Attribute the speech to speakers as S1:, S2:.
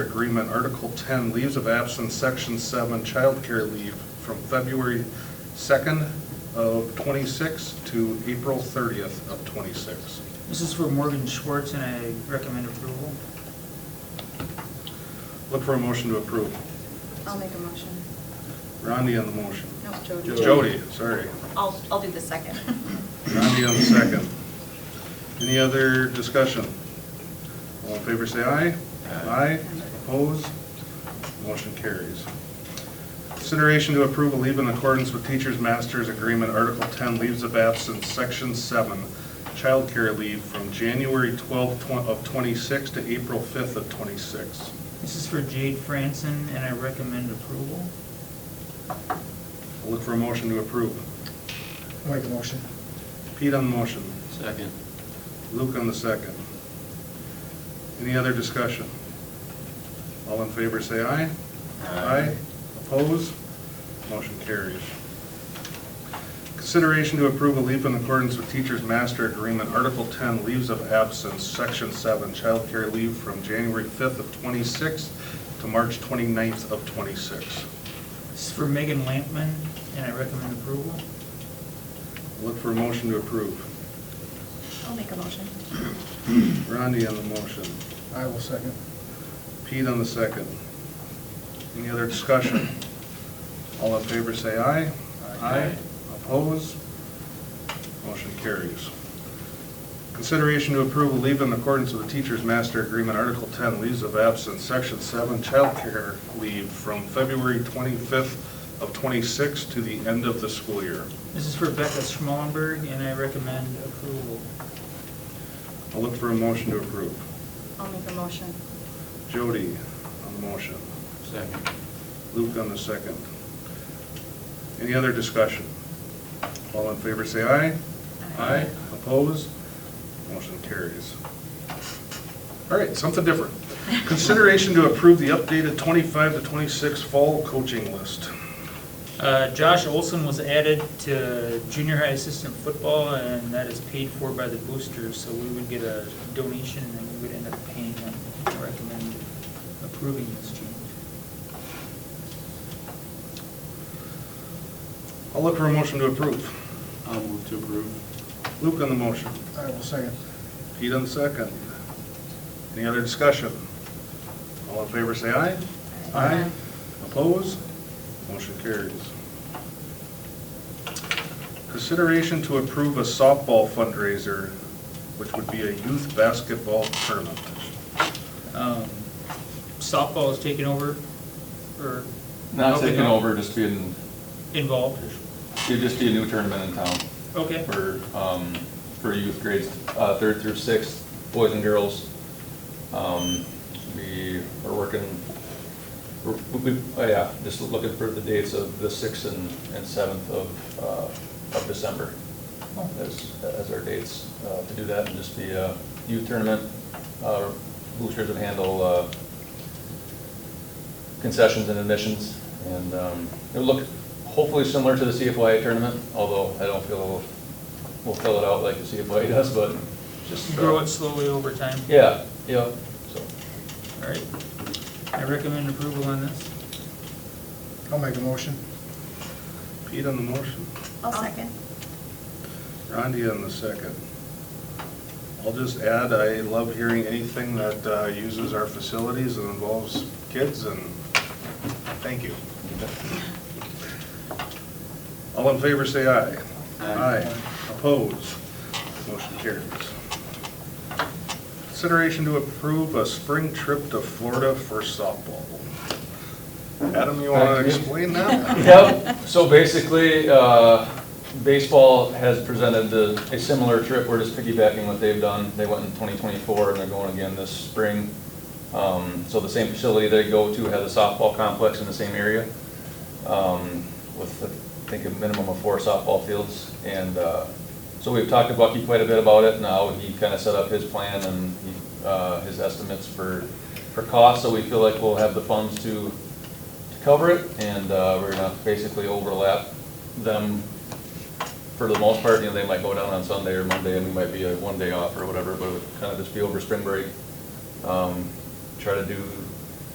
S1: Agreement, Article 10, Leaves of Absence, Section 7, Childcare Leave, from February 2nd of '26 to April 30th of '26.
S2: This is for Morgan Schwartz, and I recommend approval.
S1: Look for a motion to approve.
S3: I'll make a motion.
S1: Rondi on the motion.
S3: No, Jody.
S1: Jody, sorry.
S3: I'll, I'll do the second.
S1: Rondi on the second. Any other discussion? All in favor, say aye. Aye. Opposed? Motion carries. Consideration to approve a leave in accordance with Teachers Masters Agreement, Article 10, Leaves of Absence, Section 7, Childcare Leave from January 12th twen- of 26 to April 5th of 26.
S2: This is for Jade Franson, and I recommend approval.
S1: I'll Look for a motion to approve.
S4: I'll make a motion.
S1: Pete on the motion.
S5: Second.
S1: Luke on the second. Any other discussion? All in favor, say aye. Aye. Opposed? Motion carries. Consideration to approve a leave in accordance with Teacher's Master Agreement, Article 10, Leaves of Absence, Section 7, Childcare Leave from January 5th of 26 to March 29th of 26.
S2: This is for Megan Lampman, and I recommend approval.
S1: Look for a motion to approve.
S3: I'll make a motion.
S1: Rondi on the motion.
S4: I will second.
S1: Pete on the second. Any other discussion? All in favor, say aye. Aye. Opposed? Motion carries. Consideration to approve a leave in accordance with the Teacher's Master Agreement, Article 10, Leaves of Absence, Section 7, Childcare Leave from February 25th of 26 to the end of the school year.
S2: This is for Becca Schmallenberg, and I recommend approval.
S1: I'll look for a motion to approve.
S3: I'll make a motion.
S1: Jody on the motion.
S5: Second.
S1: Luke on the second. Any other discussion? All in favor, say aye.
S3: Aye.
S1: Opposed? Motion carries. All right, something different. Consideration to approve the updated 25 to 26 fall coaching list.
S2: Uh, Josh Olson was added to junior high assistant football, and that is paid for by the boosters, so we would get a donation, and we would end up paying them. I recommend approving this change.
S1: I'll look for a motion to approve.
S5: I'll move to approve.
S1: Luke on the motion.
S4: I will second.
S1: Pete on the second. Any other discussion? All in favor, say aye. Aye. Opposed? Motion carries. Consideration to approve a softball fundraiser, which would be a youth basketball tournament.
S2: Um, Softball is taken over, or?
S6: Not taking over, just being,
S2: Involved,
S6: it'd just be a new tournament in town
S2: okay.
S6: for, um, for youth grades, uh, third through sixth, boys and girls. Um, we are working, we're, we, oh yeah, just looking for the dates of the sixth and, and seventh of, uh, of December as, as our dates, uh, to do that and just the, uh, youth tournament. Uh, boosters would handle, uh, concessions and admissions, and um, it'll look hopefully similar to the CFYA tournament, although I don't feel we'll fill it out like the CFYA does, but just. uh,
S2: Grow it slowly over time.
S6: Yeah, yeah, so,
S2: All right. I recommend approval on this.
S4: I'll make a motion.
S1: Pete on the motion,
S3: I'll second.
S1: Rondi on the second. I'll just add, I love hearing anything that uh, uses our facilities and involves kids, and thank you. All in favor, say aye.
S5: Aye.
S1: Opposed? Motion carries. Consideration to approve a spring trip to Florida for softball. Adam, you want to
S6: Thank you.
S1: explain that?
S6: Yep, so basically, uh, baseball has presented the- a similar trip, we're just piggybacking what they've done. They went in 2024 and they're going again this spring. Um, So the same facility they go to has a softball complex in the same area um, with, I think, a minimum of four softball fields. And uh, so we've talked to Bucky quite a bit about it, now he kind of set up his plan and he, uh, his estimates for, for costs. So we feel like we'll have the funds to to cover it, and uh, we're gonna basically overlap them for the most part, you know, they might go down on Sunday or Monday, and we might be a one day off or whatever, but it would kind of just be over spring break. Um, Try to do